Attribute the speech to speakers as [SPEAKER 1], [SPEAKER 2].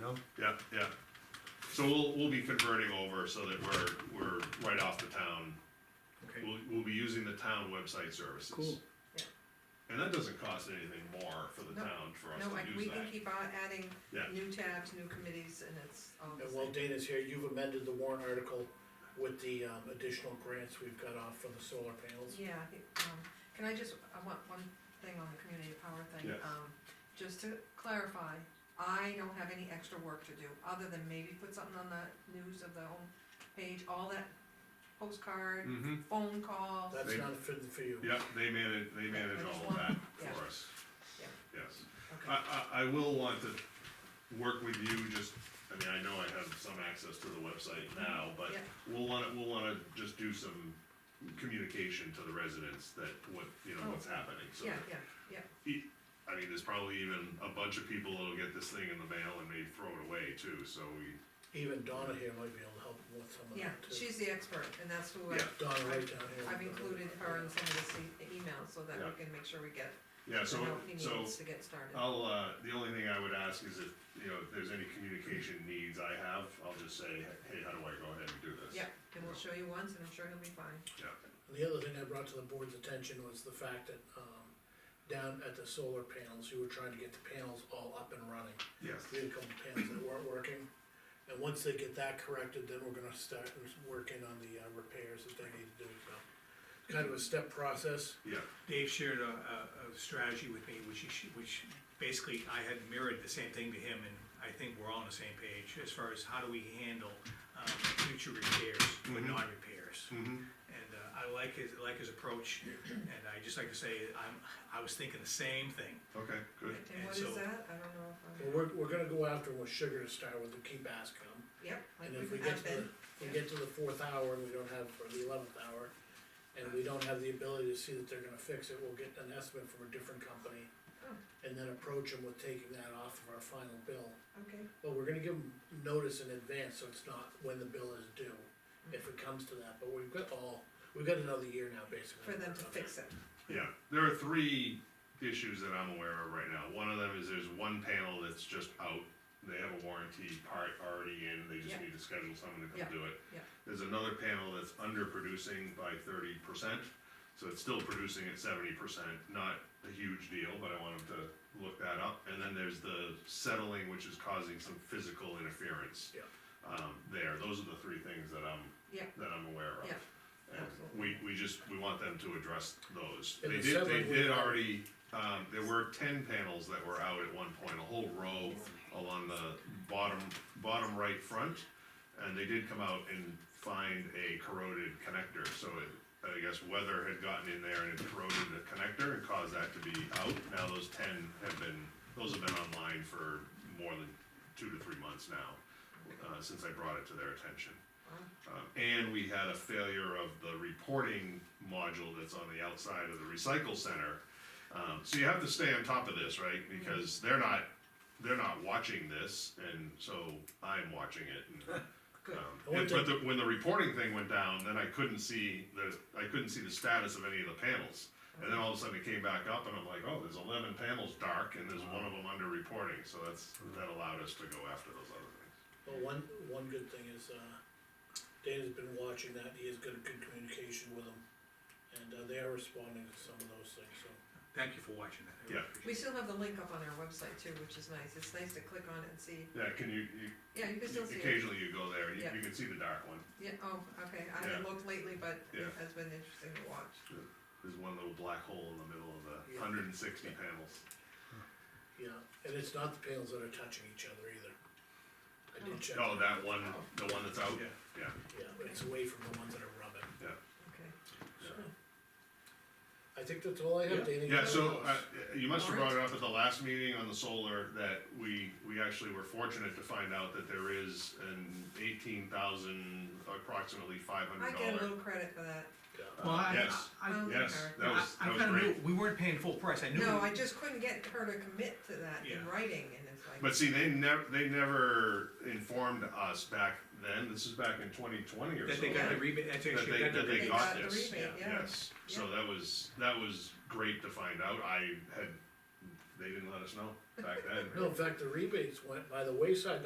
[SPEAKER 1] know?
[SPEAKER 2] yeah, yeah. So we'll, we'll be converting over so that we're, we're right off the town.
[SPEAKER 1] Okay.
[SPEAKER 2] We'll, we'll be using the town website services.
[SPEAKER 3] Cool.
[SPEAKER 4] Yeah.
[SPEAKER 2] And that doesn't cost anything more for the
[SPEAKER 4] No,
[SPEAKER 2] town for us
[SPEAKER 4] No, I-
[SPEAKER 2] to
[SPEAKER 4] we
[SPEAKER 2] use
[SPEAKER 4] can
[SPEAKER 2] that.
[SPEAKER 4] keep on adding
[SPEAKER 2] Yeah.
[SPEAKER 4] new tabs, new committees, and it's all the
[SPEAKER 3] And while
[SPEAKER 4] same.
[SPEAKER 3] Dana's here, you've amended the warrant article with the, um, additional grants we've got off for the solar panels.
[SPEAKER 4] Yeah, I think, um, can I just, I want one thing on the community power thing.
[SPEAKER 2] Yes.
[SPEAKER 4] Um, just to clarify, I don't have any extra work to do, other than maybe put something on the news of the home page, all that postcard,
[SPEAKER 2] Mm-hmm,
[SPEAKER 4] phone calls.
[SPEAKER 3] That's
[SPEAKER 2] They-
[SPEAKER 3] not fit for you.
[SPEAKER 2] yep, they manage, they manage
[SPEAKER 4] I just
[SPEAKER 2] all of
[SPEAKER 4] want-
[SPEAKER 2] that
[SPEAKER 4] yeah.
[SPEAKER 2] for us.
[SPEAKER 4] Yeah.
[SPEAKER 2] Yes.
[SPEAKER 4] Okay,
[SPEAKER 2] I, I, I will want to work with you, just, I mean, I know I have some access to the website now, but
[SPEAKER 4] Mm-hmm. Yeah.
[SPEAKER 2] we'll wanna, we'll wanna just do some communication to the residents that what, you know, what's happening, so.
[SPEAKER 4] Oh. yeah, yeah, yeah,
[SPEAKER 2] E- I mean, there's probably even a bunch of people that'll get this thing in the mail and may throw it away too, so we,
[SPEAKER 3] Even Donna here might be able to help with some of
[SPEAKER 4] yeah,
[SPEAKER 3] that too.
[SPEAKER 4] she's the expert, and that's who I,
[SPEAKER 2] Yeah.
[SPEAKER 3] Donna right down here.
[SPEAKER 4] I've included her in some of this e- email, so that
[SPEAKER 2] Yeah.
[SPEAKER 4] we can make sure we get
[SPEAKER 2] yeah,
[SPEAKER 4] the
[SPEAKER 2] so,
[SPEAKER 4] help he
[SPEAKER 2] so
[SPEAKER 4] needs to get started.
[SPEAKER 2] I'll, uh, the only thing I would ask is if, you know, if there's any communication needs I have, I'll just say, hey, how do I go ahead and do this?
[SPEAKER 4] Yeah, and we'll show you once, and I'm sure he'll be fine.
[SPEAKER 3] And The other thing I brought to the board's attention was the fact that, um, down at the solar panels, you were trying to get the panels all up and running.
[SPEAKER 2] Yes,
[SPEAKER 3] We had a couple panels that weren't working, and once they get that corrected, then we're gonna start working on the uh, repairs that they need to do, so. Kind of a step process,
[SPEAKER 2] yeah,
[SPEAKER 5] Dave shared a, a, a strategy with me, which he, sh- which basically I had mirrored the same thing to him, and I think we're all on the same page as far as how do we handle, um, future repairs with
[SPEAKER 2] Mhm.
[SPEAKER 5] non-repairs.
[SPEAKER 2] mm-hmm,
[SPEAKER 5] And, uh, I like his, like his approach, and I just like to say, I'm, I was thinking the same thing.
[SPEAKER 2] okay, good,
[SPEAKER 4] And
[SPEAKER 5] And
[SPEAKER 4] what is
[SPEAKER 5] so-
[SPEAKER 4] that? I don't know if I'm.
[SPEAKER 3] Well, we're, we're gonna go after them with sugar to start with, and keep asking them.
[SPEAKER 4] Yep,
[SPEAKER 3] And
[SPEAKER 4] like
[SPEAKER 3] if we
[SPEAKER 4] we
[SPEAKER 3] get
[SPEAKER 4] have
[SPEAKER 3] to the,
[SPEAKER 4] been,
[SPEAKER 3] if we get to the fourth hour and we don't have, or the eleventh hour, and we don't have the ability to see that they're gonna fix it, we'll get an estimate from a different company.
[SPEAKER 4] Oh.
[SPEAKER 3] And then approach them with taking that off of our final bill,
[SPEAKER 4] okay,
[SPEAKER 3] but we're gonna give them notice in advance, so it's not when the bill is due, if it comes to that, but we've got all, we've got another year now, basically.
[SPEAKER 4] for them to
[SPEAKER 3] work on
[SPEAKER 4] fix it.
[SPEAKER 2] yeah. There are three issues that I'm aware of right now. One of them is there's one panel that's just out. They have a warranty part already in, they just
[SPEAKER 4] Yeah.
[SPEAKER 2] need to schedule someone to
[SPEAKER 4] Yeah,
[SPEAKER 2] come do it.
[SPEAKER 4] yeah.
[SPEAKER 2] There's another panel that's underproducing by thirty percent, so it's still producing at seventy percent, not a huge deal, but I want them to look that up. And then there's the settling, which is causing some physical interference.
[SPEAKER 3] Yeah.
[SPEAKER 2] Um, there, those are the three things that I'm,
[SPEAKER 4] Yeah.
[SPEAKER 2] that I'm aware of.
[SPEAKER 4] Yeah,
[SPEAKER 2] And we,
[SPEAKER 4] absolutely.
[SPEAKER 2] we just, we want them to address those.
[SPEAKER 3] And
[SPEAKER 2] They
[SPEAKER 3] the
[SPEAKER 2] did, they
[SPEAKER 3] seven we
[SPEAKER 2] did
[SPEAKER 3] have-
[SPEAKER 2] already, um, there were ten panels that were out at one point, a whole row along the bottom, bottom right front. And they did come out and find a corroded connector, so it, I guess weather had gotten in there and it corroded the connector and caused that to be out. Now those ten have been, those have been online for more than two to three months now, uh, since I brought it to their attention.
[SPEAKER 4] Wow.
[SPEAKER 2] Um, and we had a failure of the reporting module that's on the outside of the recycle center. Um, so you have to stay on top of this, right? Because they're not, they're not watching this, and so I'm watching it. and,
[SPEAKER 4] Good.
[SPEAKER 2] um, and- but the, when the reporting thing went down, then I couldn't see the, I couldn't see the status of any of the panels. And then all of a sudden it came back up, and I'm like, oh, there's eleven panels dark, and there's one of them under reporting, so that's, that allowed us to go after those other things.
[SPEAKER 3] Well, one, one good thing is, uh, Dana's been watching that, he has got a good communication with them, and, uh, they are responding to some of those things, so.
[SPEAKER 5] Thank you for watching that. I really
[SPEAKER 2] Yeah.
[SPEAKER 5] appreciate
[SPEAKER 4] We still have the link up on our website too, which is nice. It's nice to click on it and see.
[SPEAKER 2] Yeah, can you, you
[SPEAKER 4] Yeah, you can still see it.
[SPEAKER 2] Occasionally you go there, you, you can see the dark one,
[SPEAKER 4] Yeah, oh, okay.
[SPEAKER 2] Yeah.
[SPEAKER 4] I haven't looked lately, but it
[SPEAKER 2] Yeah.
[SPEAKER 4] has been interesting to watch.
[SPEAKER 2] there's one little black hole in the middle of the
[SPEAKER 3] Yeah.
[SPEAKER 2] hundred and sixty panels.
[SPEAKER 3] Yeah, and it's not the panels that are touching each other either. I did check,
[SPEAKER 2] Oh, that one, the one that's out,
[SPEAKER 5] it. Yeah.
[SPEAKER 2] yeah,
[SPEAKER 3] yeah, but it's away from the ones that are rubbing,
[SPEAKER 4] Okay.
[SPEAKER 3] so. I think that's all I have, Dana. you
[SPEAKER 2] yeah,
[SPEAKER 3] got
[SPEAKER 2] so,
[SPEAKER 3] anything
[SPEAKER 2] uh,
[SPEAKER 3] else?
[SPEAKER 2] you must have brought it up at the last meeting on the solar, that we, we actually were fortunate to find out that there is an eighteen thousand, approximately five
[SPEAKER 4] I
[SPEAKER 2] hundred
[SPEAKER 4] get a
[SPEAKER 2] dollar.
[SPEAKER 4] little credit for that.
[SPEAKER 3] Yeah.
[SPEAKER 5] Well, I,
[SPEAKER 2] Yes,
[SPEAKER 5] I, I-
[SPEAKER 4] Well,
[SPEAKER 2] yes, that was,
[SPEAKER 5] I
[SPEAKER 2] that was
[SPEAKER 5] kinda
[SPEAKER 2] great.
[SPEAKER 5] knew, we weren't paying full price, I knew.
[SPEAKER 4] No,
[SPEAKER 5] we-
[SPEAKER 4] I just couldn't get her to commit to that in
[SPEAKER 5] Yeah.
[SPEAKER 4] writing and it's like.
[SPEAKER 2] But see, they never, they never informed us back then, this is back in twenty twenty or
[SPEAKER 5] That
[SPEAKER 2] something.
[SPEAKER 5] they got the rebate, that's
[SPEAKER 2] That
[SPEAKER 5] actually,
[SPEAKER 2] they,
[SPEAKER 5] got the
[SPEAKER 2] that they
[SPEAKER 5] rebate.
[SPEAKER 2] got
[SPEAKER 4] They got the
[SPEAKER 2] this,
[SPEAKER 4] rebate, yeah.
[SPEAKER 2] yes, so that was, that was great to find out, I had, they didn't let us know back then.
[SPEAKER 3] No, in fact, the rebates went by the wayside